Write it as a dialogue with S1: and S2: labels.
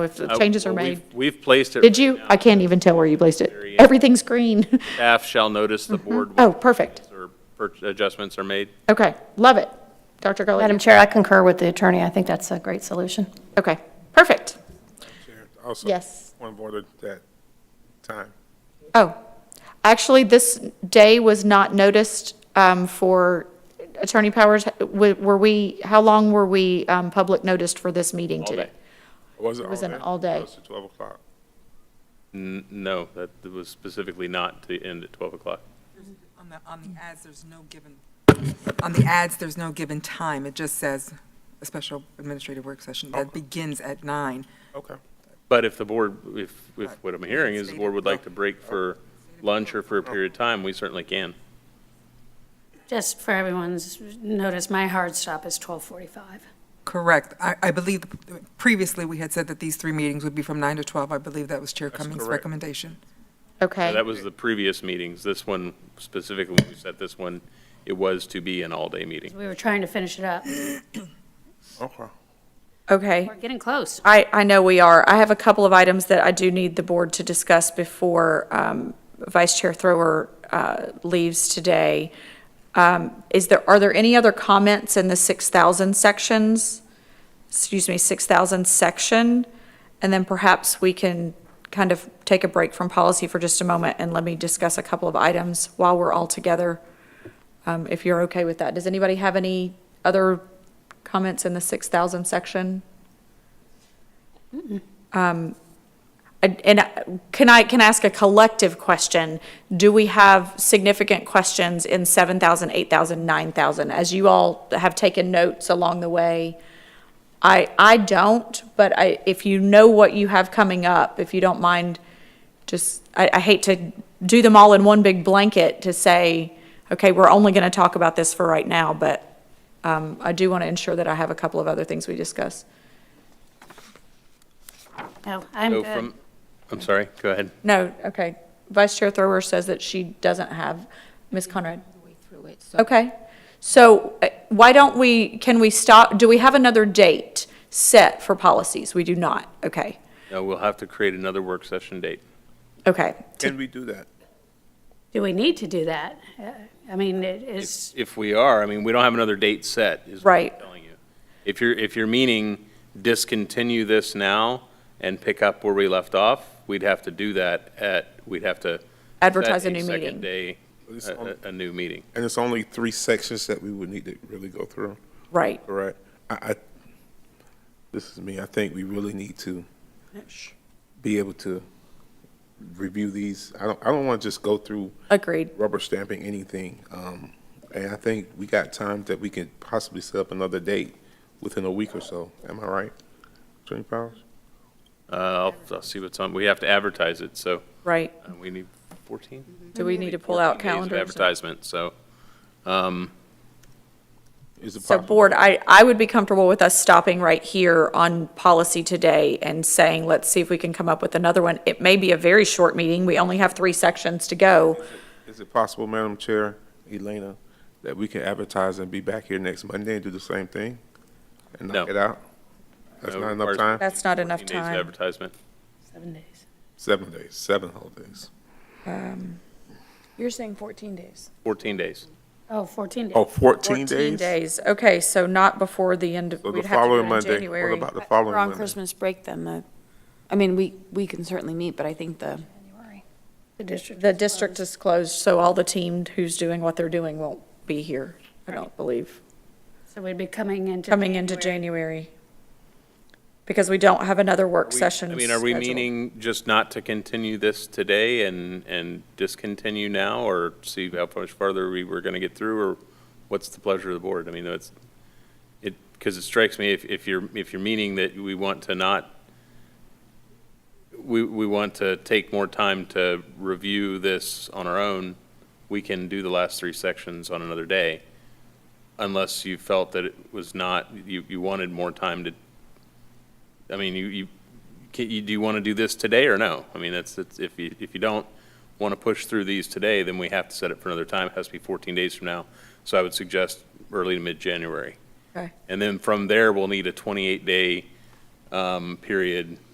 S1: if the
S2: Uh,
S1: changes are
S2: well,
S1: made.
S2: we've- We've placed it.
S1: Did
S2: right
S1: you?
S2: now.
S1: I can't even tell where you placed it.
S2: Very end.
S1: Everything's green.
S2: Staff shall notice the board.
S1: Oh, perfect.
S2: Or per- adjustments are made.
S1: Okay, love it. Dr. Gully?
S3: Madam Chair, I concur with the attorney. I think that's a great solution.
S1: Okay, perfect.
S4: Chair, Also.
S1: Yes.
S4: Point of order that time.
S1: Oh, actually, this day was not noticed um, for Attorney Powers. Were were we, how long were we um, public noticed for this meeting
S2: All
S1: today?
S2: day.
S4: Was it all day?
S1: It was an all-day.
S4: It was to 12 o'clock.
S2: N- No, that was specifically not to end at 12 o'clock.
S5: On the, on the ads, there's no given, on the ads, there's no given time. It just says a special administrative work session that begins at nine.
S4: Okay.
S2: But if the board, if, if what I'm hearing is the board would like to break for lunch or for a period of time, we certainly can.
S6: Just for everyone's notice, my hard stop is 12:45.
S5: Correct. I, I believe previously we had said that these three meetings would be from nine to 12. I believe that was Chair Cummings'
S4: correct.
S5: recommendation.
S2: Now,
S1: Okay,
S2: That was the previous meetings. This one specifically, when we set this one, it was to be an all-day meeting.
S6: We were trying to finish it up.
S4: Okay.
S7: Okay.
S6: We're getting close.
S7: I, I know we are. I have a couple of items that I do need the board to discuss before um, Vice Chair Thrower uh, leaves today. Um, Is there, are there any other comments in the 6,000 sections? Excuse me, 6,000 section? And then perhaps we can kind of take a break from policy for just a moment and let me discuss a couple of items while we're all together, um, if you're okay with that. Does anybody have any other comments in the 6,000 section? I- And uh, can I, can I ask a collective question? Do we have significant questions in 7,000, 8,000, 9,000? As you all have taken notes along the way, I, I don't, but I, if you know what you have coming up, if you don't mind, just, I, I hate to do them all in one big blanket to say, okay, we're only going to talk about this for right now, but um, I do want to ensure that I have a couple of other things we discuss.
S6: No, I'm
S2: So
S6: good.
S2: from, I'm sorry, go ahead.
S7: No, okay. Vice Chair Thrower says that she doesn't have, Ms. Conrad? Okay. So uh, why don't we, can we stop, do we have another date set for policies? We do not, okay.
S2: No, we'll have to create another work session date.
S7: Okay,
S4: Can we do that?
S6: Do we need to do that? Uh, I mean, it is,
S2: If we are, I mean, we don't have another date set, is what I'm
S7: Right.
S2: telling you. If you're, if you're meaning discontinue this now and pick up where we left off, we'd have to do that at, we'd have to. set
S7: Advertise a new meeting.
S2: Second day,
S4: It's
S2: a-
S4: on-
S2: a, a new meeting.
S4: And it's only three sections that we would need to really go through,
S7: right.
S4: correct? I, I, this is me, I think we really need to be able to review these. I don't, I don't want to just go through
S7: Agreed.
S4: rubber stamping anything. Um, and I think we got time that we can possibly set up another date within a week or so. Am I right? Attorney Powers?
S2: Uh, I'll, I'll see what's on, we have to advertise it, so
S7: Right.
S2: uh, we need fourteen?
S7: Do we need to pull out
S2: 14 days of
S7: calendars?
S2: Advertisement, so, um,
S4: Is it
S7: So
S4: possible?
S7: Board, I, I would be comfortable with us stopping right here on policy today and saying, let's see if we can come up with another one. It may be a very short meeting. We only have three sections to go.
S4: Is it possible, Madam Chair, Elena, that we can advertise and be back here next Monday and do the same thing? And
S2: No.
S4: knock it out? That's
S2: No,
S4: not
S2: ours-
S4: enough time?
S7: That's not enough
S2: 14 days of
S7: time.
S2: advertisement.
S6: seven days.
S4: Seven days, seven whole days.
S8: You're saying 14 days.
S2: Fourteen days.
S6: Oh, 14 days.
S4: Oh,
S7: 14
S4: 14 days?
S7: days, okay, so not before the end, of
S4: So
S7: we'd
S4: the
S7: have to do it
S4: following
S7: in
S4: Monday.
S7: January.
S4: What about the
S8: We're on
S4: following Monday?
S8: Christmas break then, the, I mean, we, we can certainly meet, but I think the,
S6: The district.
S7: The district is closed, so all the team who's doing what they're doing won't be here, I don't believe,
S6: So we'd be coming into.
S7: coming into January. Because we don't have another work
S2: We-
S7: session
S2: I mean, are we
S7: scheduled.
S2: meaning just not to continue this today and, and discontinue now, or see how much farther we were going to get through, or what's the pleasure of the board? I mean, that's, it, because it strikes me, if, if you're, if you're meaning that we want to not, we, we want to take more time to review this on our own, we can do the last three sections on another day, unless you felt that it was not, you, you wanted more time to, I mean, you, you, can you, do you want to do this today or no? I mean, that's, that's, if you, if you don't want to push through these today, then we have to set it for another time. It has to be 14 days from now. So I would suggest early to mid-January.
S7: Okay.
S2: And then from there, we'll need a 28-day, um, period